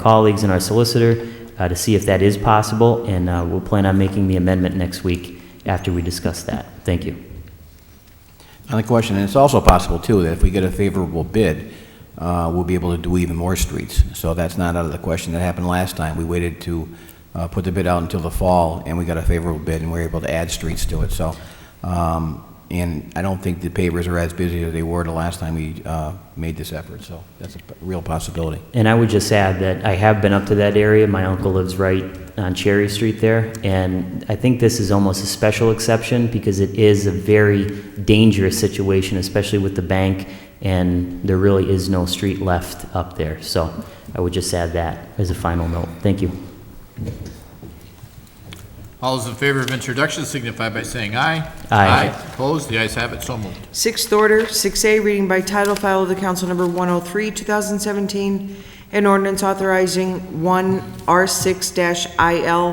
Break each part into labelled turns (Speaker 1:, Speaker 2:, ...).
Speaker 1: colleagues and our solicitor uh, to see if that is possible, and uh, we'll plan on making the amendment next week after we discuss that. Thank you.
Speaker 2: On the question, and it's also possible, too, that if we get a favorable bid, uh, we'll be able to do even more streets. So that's not out of the question. That happened last time. We waited to uh, put the bid out until the fall, and we got a favorable bid, and we were able to add streets to it, so. um, And I don't think the pavers are as busy as they were the last time we uh, made this effort, so that's a p- real possibility.
Speaker 1: And I would just add that I have been up to that area. My uncle lives right on Cherry Street there. And I think this is almost a special exception because it is a very dangerous situation, especially with the bank, and there really is no street left up there. So I would just add that as a final note. Thank you.
Speaker 3: All those in favor of introduction signify by saying aye.
Speaker 1: Aye.
Speaker 3: Opposed? The ayes have it, so moved.
Speaker 4: Sixth order, 6A, reading by title, file of the council number 103, 2017, an ordinance authorizing 1R6-IL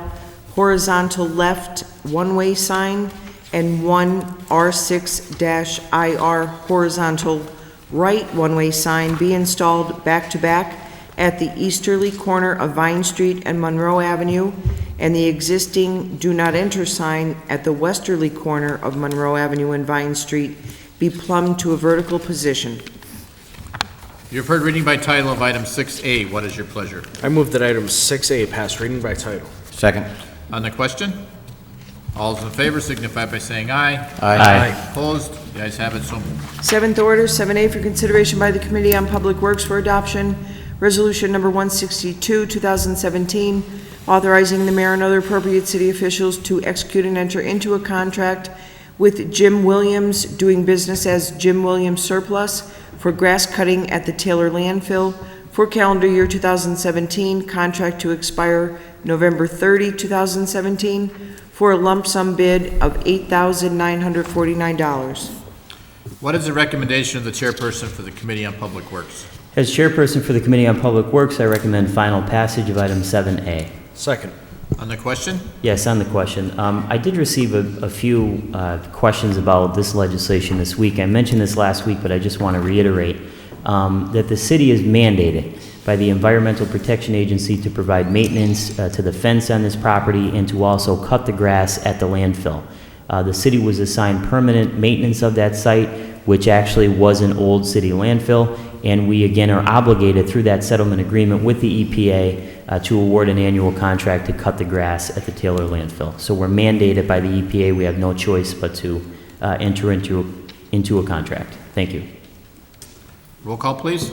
Speaker 4: horizontal left one-way sign and 1R6-IR horizontal right one-way sign be installed back-to-back at the easterly corner of Vine Street and Monroe Avenue, and the existing Do Not Enter sign at the westerly corner of Monroe Avenue and Vine Street be plumbed to a vertical position.
Speaker 3: You've heard reading by title of item 6A. What is your pleasure?
Speaker 5: I move that item 6A pass reading by title.
Speaker 2: Second?
Speaker 3: On the question? All those in favor signify by saying aye. Opposed? The ayes have it, so moved.
Speaker 4: Seventh order, 7A, for consideration by the Committee on Public Works for Adoption, Resolution Number 162, 2017, authorizing the mayor and other appropriate city officials to execute and enter into a contract with Jim Williams, doing business as Jim Williams Surplus, for grass cutting at the Taylor landfill for calendar year 2017, contract to expire November 30, 2017, for a lump sum bid of $8,949.
Speaker 3: What is the recommendation of the chairperson for the Committee on Public Works?
Speaker 1: As chairperson for the Committee on Public Works, I recommend final passage of item 7A.
Speaker 5: Second.
Speaker 3: On the question?
Speaker 1: Yes, on the question. Um, I did receive a, a few uh, questions about this legislation this week. I mentioned this last week, but I just want to reiterate um, that the city is mandated by the Environmental Protection Agency to provide maintenance uh, to the fence on this property and to also cut the grass at the landfill. Uh, the city was assigned permanent maintenance of that site, which actually was an old city landfill, and we again are obligated through that settlement agreement with the EPA uh, to award an annual contract to cut the grass at the Taylor landfill. So we're mandated by the EPA, we have no choice but to uh, enter into, into a contract. Thank you.
Speaker 3: Roll call, please.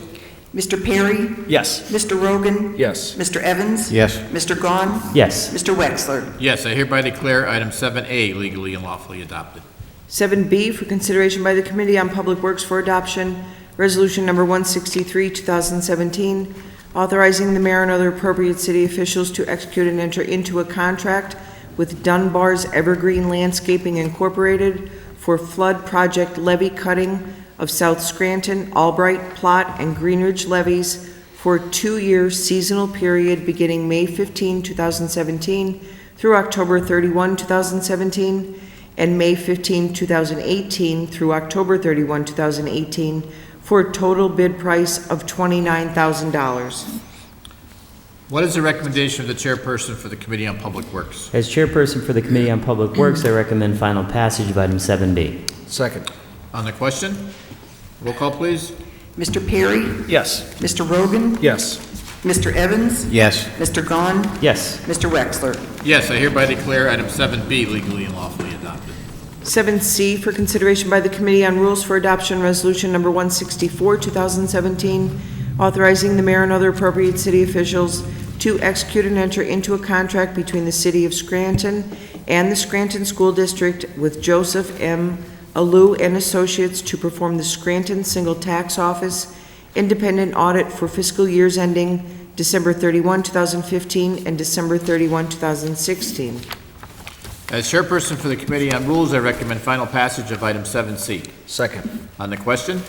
Speaker 6: Mr. Perry?
Speaker 5: Yes.
Speaker 6: Mr. Rogan?
Speaker 5: Yes.
Speaker 6: Mr. Evans?
Speaker 2: Yes.
Speaker 6: Mr. Gahn?
Speaker 1: Yes,
Speaker 6: Mr. Wexler?
Speaker 3: Yes, I hereby declare item 7A legally and lawfully adopted.
Speaker 4: 7B for consideration by the Committee on Public Works for Adoption, Resolution Number 163, 2017, authorizing the mayor and other appropriate city officials to execute and enter into a contract with Dunbar's Evergreen Landscaping Incorporated for flood project levee cutting of South Scranton, Albright, Plot, and Greenridge levees for a two-year seasonal period beginning May 15, 2017 through October 31, 2017, and May 15, 2018 through October 31, 2018, for a total bid price of $29,000.
Speaker 3: What is the recommendation of the chairperson for the Committee on Public Works?
Speaker 1: as chairperson for the Committee on Public Works, I recommend final passage of item 7B.
Speaker 5: Second.
Speaker 3: On the question? Roll call, please.
Speaker 6: Mr. Perry?
Speaker 5: Yes.
Speaker 6: Mr. Rogan?
Speaker 5: Yes.
Speaker 6: Mr. Evans?
Speaker 2: Yes.
Speaker 6: Mr. Gahn?
Speaker 1: Yes,
Speaker 6: Mr. Wexler?
Speaker 3: Yes, I hereby declare item 7B legally and lawfully adopted.
Speaker 4: 7C for consideration by the Committee on Rules for Adoption Resolution Number 164, 2017, authorizing the mayor and other appropriate city officials to execute and enter into a contract between the City of Scranton and the Scranton School District with Joseph M. Alou and Associates to perform the Scranton Single Tax Office independent audit for fiscal years ending December 31, 2015, and December 31, 2016.
Speaker 3: As chairperson for the Committee on Rules, I recommend final passage of item 7C.
Speaker 5: Second.
Speaker 3: On the question?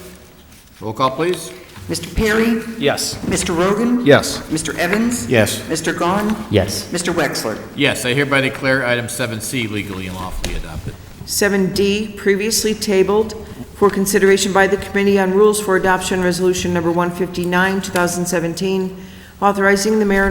Speaker 3: Roll call, please.
Speaker 6: Mr. Perry?
Speaker 5: Yes.
Speaker 6: Mr. Rogan?
Speaker 5: Yes.
Speaker 6: Mr. Evans?
Speaker 2: Yes.
Speaker 6: Mr. Gahn?
Speaker 1: yes.
Speaker 6: Mr. Wexler?
Speaker 3: Yes, I hereby declare item 7C legally and lawfully adopted.
Speaker 4: 7D, previously tabled for consideration by the Committee on Rules for Adoption Resolution Number 159, 2017, authorizing the mayor and